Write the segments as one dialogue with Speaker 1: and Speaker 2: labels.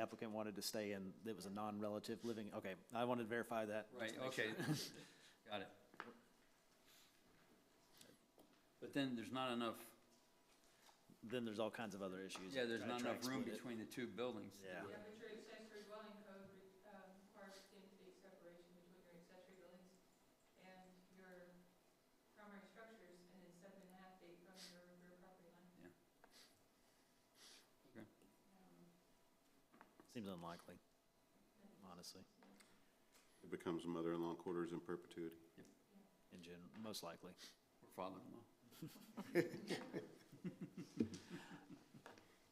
Speaker 1: applicant wanted to stay in, it was a non-relative living, okay, I wanted to verify that. just
Speaker 2: Right,
Speaker 1: to make sure.
Speaker 2: okay, got it. But then there's not enough,
Speaker 1: Then there's all kinds of other issues.
Speaker 2: yeah, there's
Speaker 1: Try to
Speaker 2: not
Speaker 1: track
Speaker 2: enough room
Speaker 1: split it.
Speaker 2: between the two buildings.
Speaker 1: Yeah.
Speaker 3: Yeah, but your accessory dwelling code re- um, requires skin-to-skin separation between your accessory buildings and your primary structures, and it's seven and a half feet from your rear property line.
Speaker 2: Yeah. Okay.
Speaker 3: Um,
Speaker 1: Seems unlikely, honestly,
Speaker 4: It becomes mother-in-law quarters in perpetuity.
Speaker 1: in general, most likely.
Speaker 2: Or Father-in-law.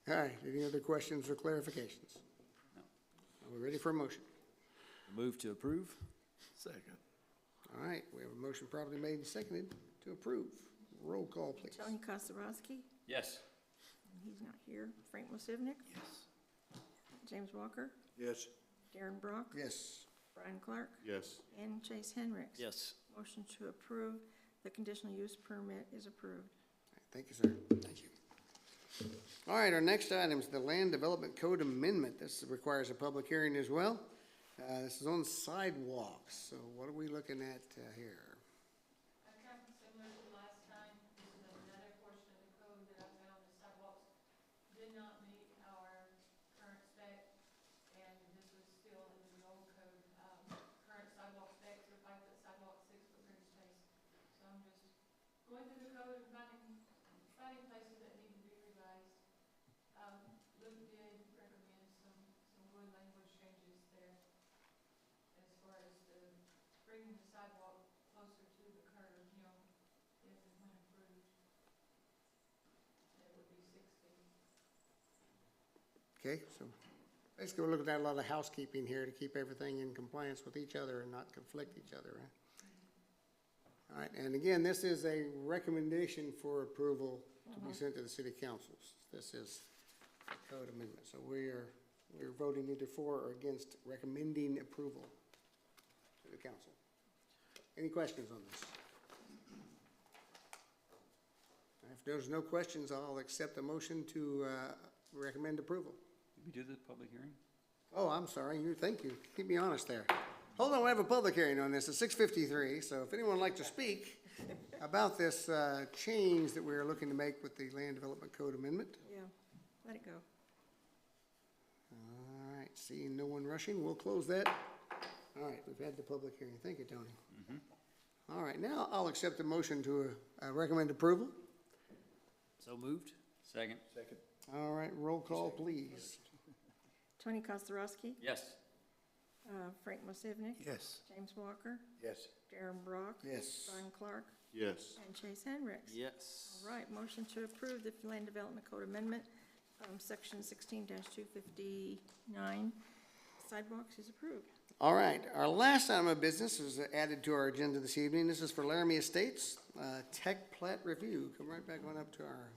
Speaker 5: All right, any other questions or clarifications?
Speaker 2: No.
Speaker 5: Are we ready for a motion?
Speaker 1: Move to approve?
Speaker 5: Second. All right, we have a motion properly made and seconded to approve. Roll call, please.
Speaker 6: Tony Kostarowski,
Speaker 2: Yes.
Speaker 6: and he's not here. Frank Musivnik,
Speaker 2: Yes.
Speaker 6: James Walker,
Speaker 4: Yes.
Speaker 6: Darren Brock,
Speaker 5: Yes,
Speaker 6: Brian Clark,
Speaker 4: Yes.
Speaker 6: and Chase Henricks.
Speaker 1: Yes.
Speaker 6: Motion to approve. The conditional use permit is approved.
Speaker 5: thank you, sir. Thank you. All right, our next item is the Land Development Code Amendment. This requires a public hearing as well. Uh, this is on sidewalks, so what are we looking at uh, here?
Speaker 3: I've got similar to last time, this is another portion of the code that I found, the sidewalks did not meet our current spec, and this was still in the old code, um, current sidewalk specs are five foot sidewalk, six foot green space. So I'm just going through the code and finding, finding places that need to be revised. Um, Luke did recommend some, some good language changes there as far as the, bringing the sidewalk closer to the curb, you know, if and when approved. That would be six feet.
Speaker 5: Okay, so basically, we're looking at a lot of housekeeping here to keep everything in compliance with each other and not conflict each other, right? All right, and again, this is a recommendation for approval to be sent to the city councils. This is a code amendment, so we are, we're voting either for or against recommending approval to the council. Any questions on this? If there's no questions, I'll accept the motion to uh, recommend approval.
Speaker 2: Did we do the public hearing?
Speaker 5: Oh, I'm sorry, you, thank you, keep me honest there. Hold on, we have a public hearing on this at six fifty-three, so if anyone would like to speak about this uh, change that we're looking to make with the Land Development Code Amendment.
Speaker 6: Yeah, let it go.
Speaker 5: All right, seeing no one rushing, we'll close that. All right, we've had the public hearing, thank you, Tony. All right, now I'll accept the motion to uh, recommend approval.
Speaker 1: So moved?
Speaker 2: Second?
Speaker 5: All right, roll call, please.
Speaker 6: Tony Kostarowski,
Speaker 2: Yes.
Speaker 6: uh, Frank Musivnik.
Speaker 5: Yes.
Speaker 6: James Walker,
Speaker 4: Yes.
Speaker 6: Darren Brock.
Speaker 5: Yes.
Speaker 6: Brian Clark,
Speaker 4: Yes.
Speaker 6: and Chase Henricks.
Speaker 1: Yes.
Speaker 6: All right, motion to approve the Land Development Code Amendment, um, section sixteen two fifty-nine. Sidewalks is approved.
Speaker 5: All right, our last item of business was added to our agenda this evening. This is for Laramie Estates, uh, tech plat review. Come right back on up to our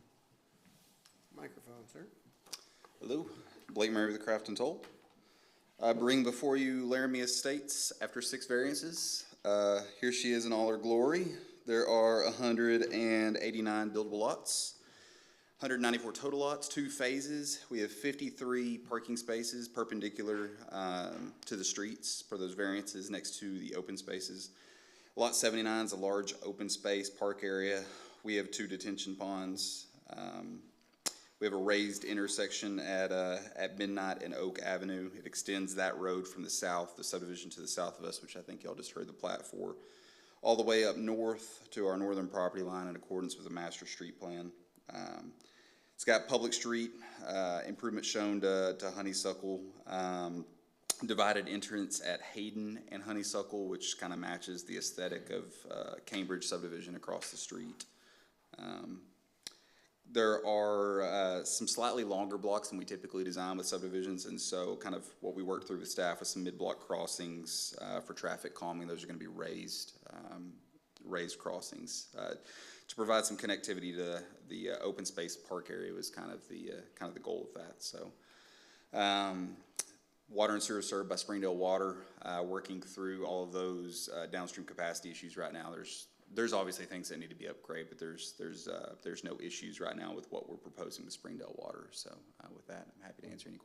Speaker 5: microphone, sir.
Speaker 7: Hello, Blake Murray with the Craft and Toll. I bring before you Laramie Estates after six variances. Uh, here she is in all her glory. There are hundred and eighty-nine buildable lots, hundred ninety-four total lots, two phases. We have fifty-three parking spaces perpendicular, um, to the streets for those variances next to the open spaces. Lot seventy-nine is a large open space park area. We have two detention ponds. Um, we have a raised intersection at, uh, at Midnight and Oak Avenue. It extends that road from the south, the subdivision to the south of us, which I think y'all just heard the plat for, all the way up north to our northern property line in accordance with the master street plan. Um, it's got public street, uh, improvement shown to, to Honeysuckle, um, divided entrance at Hayden and Honeysuckle, which kind of matches the aesthetic of, uh, Cambridge subdivision across the street. Um, there are uh, some slightly longer blocks than we typically design with subdivisions, and so kind of what we worked through with staff with some mid-block crossings uh, for traffic calming. Those are going to be raised, um, raised crossings uh, to provide some connectivity to the uh, open space park area was kind of the uh, kind of the goal of that. So. Um, Water and sewer served by Springdale Water, uh, working through all of those, uh, downstream capacity issues right now. There's, there's obviously things that need to be upgraded, but there's, there's, uh, there's no issues right now with what we're proposing with Springdale Water. So, uh, with that, I'm happy to answer any questions.